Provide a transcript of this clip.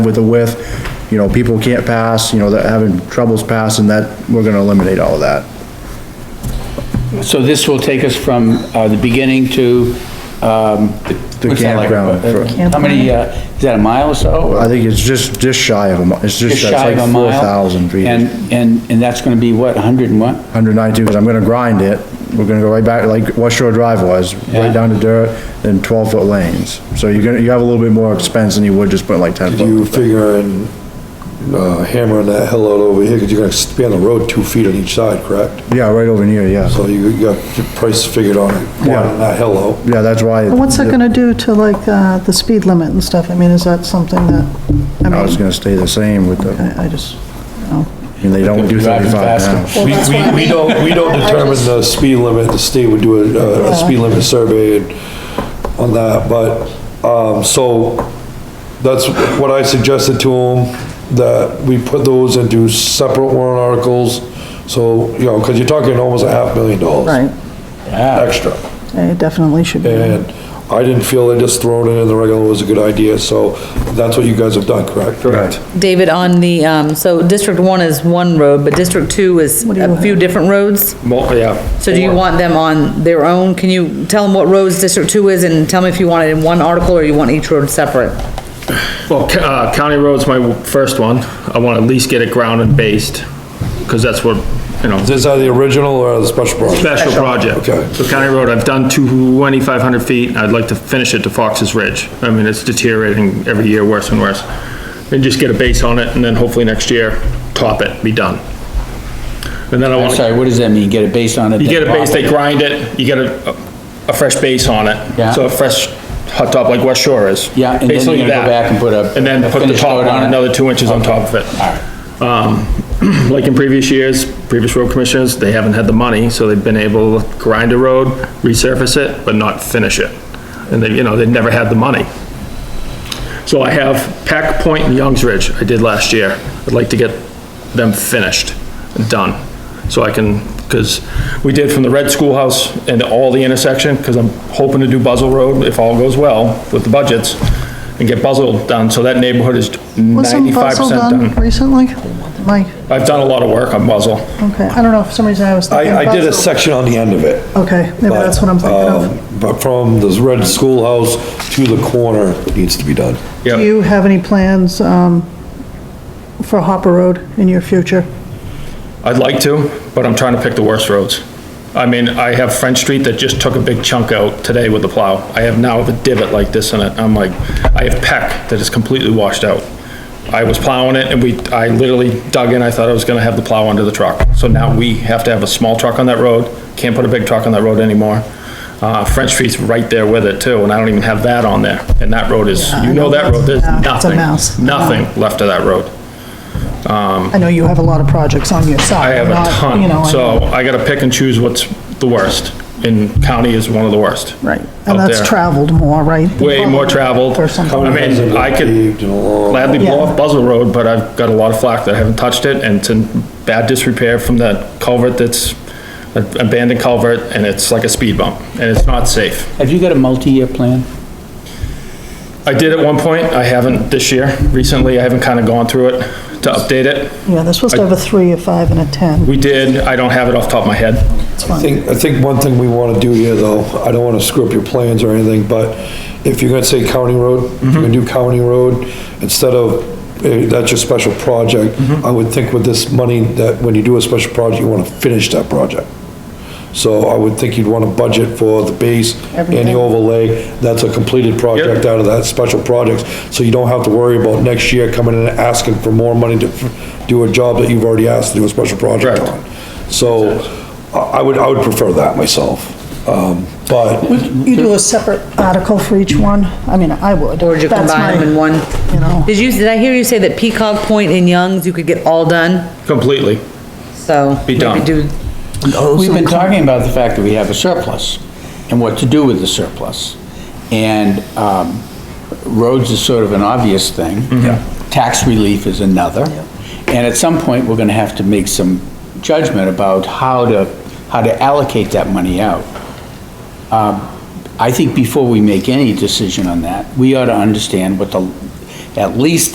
with the width, you know, people can't pass, you know, they're having troubles passing, that, we're gonna eliminate all of that. So this will take us from uh, the beginning to, um... The what's that like, campground uh, for- How many, uh, is that a mile or so? I or think it's just, just shy of a, mi- it's Just just, that's shy like of a four mile? thousand feet. And, and, and that's gonna be what, 100 and what? Hundred ninety-two, because I'm gonna grind it, we're gonna go right back, like West Shore Drive was, Yeah. right down to dirt, then twelve-foot lanes. So you're gonna, you have a little bit more expense than you would just put like ten foot. You figure in, uh, hammering that hill out over here, because you're gonna expand the road two feet on each side, correct? Yeah, right over near, yeah. So you you got your price figured on it, Yeah. on that hill out. Yeah, that's why. But What's it gonna do to like, uh, the speed limit and stuff? I mean, is that something that, I No, it's mean, gonna stay the same with the, I I just, I mean, they don't do Driving thirty-five faster. Well, now. We, that's what I we, we mean. don't, we don't I determine just- the speed limit, the state would do a, a speed limit survey and- on that, but, um, so that's what I suggested to him, that we put those into separate warrant articles, so, you know, because you're talking almost a half million dollars. right, Yeah, Extra. it definitely should be. And I didn't feel that just throwing it in the regular was a good idea, so that's what you guys have done, correct? Correct. David, on the, um, so District One is one road, but District Two is do you a few different roads. yeah. So do you want them on their own? Can you tell them what roads District Two is and tell me if you want it in one article or you want each road separate? Well, co- uh, county road's my first one. I want to at least get it ground and based, because that's what, you know, Is that the original or the special project? special project. Okay. So county road, I've done 2,500 feet. I'd like to finish it to Fox's Ridge. I mean, it's deteriorating every year worse and worse. And just get a base on it, and then hopefully next year, top it, be done. And then I I'm want, sorry, to what does that mean? Get it based on it? you get a then base, they pop grind it, you get a, a fresh base on it. Yeah. So a fresh hot top like West Shore is. Yeah, and then you're Basically gonna go that. back and put a- And then a put the finished top coat on on, it. another two inches on top of it. All right, Um, Like in previous years, previous road commissioners, they haven't had the money, so they've been able to grind a road, resurface it, but not finish it. And they, you know, they've never had the money. So I have Pack Point and Youngs Ridge I did last year. I'd like to get them finished and done. So I can, because we did from the red schoolhouse and all the intersection, because I'm hoping to do Buzzell Road if all goes well with the budgets and get Buzzell done. So that neighborhood is Wasn't ninety-five Buzzell percent done recently? Mike, I've done a lot of work on Buzzell. okay, I don't know, for some reason I was thinking I, I did a Buzzell. section on the end of it. Okay, maybe but, that's what I'm thinking um, of. But from this red schoolhouse to the corner needs to be done. Yeah. Do you have any plans, um, for Hopper Road in your future? I'd like to, but I'm trying to pick the worst roads. I mean, I have French Street that just took a big chunk out today with the plow. I have now a divot like this in it. I'm like, I have Peck that is completely washed out. I was plowing it and we, I literally dug in, I thought I was gonna have the plow under the truck. So now we have to have a small truck on that road, can't put a big truck on that road anymore. Uh, French Street's right there with it too, and I don't even have that on there. And that road is, you know that road, there's Yeah, it's a nothing, mess. nothing left of that road. I know you have a lot of projects on your I side. have a not, you know, ton, I- so I gotta pick and choose what's the worst, and county is one of the worst. Right, out and that's there. traveled more, right? than Way more Buzzell traveled. Or something. I mean, I could Paved and along. gladly blow Yeah. off Buzzell Road, but I've got a lot of flack that I haven't touched it, and it's in bad disrepair from that culvert that's an abandoned culvert, and it's like a speed bump, and it's not safe. have you got a multi-year plan? I did at one point, I haven't this year, recently, I haven't kinda gone through it to update it. Yeah, they're supposed to have a three, a five, and a 10. We did, I don't have it off the top of my head. It's I fine. think, I think one thing we want to do here, though, I don't want to screw up your plans or anything, but if you're going to say county road, if you're going to do county road, instead of, eh, that's your special project, I would think with this money, that when you do a special project, you want to finish that project. So I would think you'd want to budget for the base and the Everything. overlay, that's a completed project out of that special project, so you don't have to worry about next year coming in and asking for more money to f- do a job that you've already asked to do a special project Correct. on. So I I would, I would prefer that myself, um, but You do a separate article for each one? I mean, I would. Or would you That's combine my- them in one? You know, Did you, did I hear you say that Peacock Point and Youngs, you could get all done? Completely. So. Be done. maybe do- We've been talking about the fact that we have a surplus and what to do with the surplus. And um, roads is sort of an obvious thing. Tax relief is another. And at some point, we're gonna have to make some judgment about how to, how to allocate that money out. Um, I think before we make any decision on that, we ought to understand what the, at least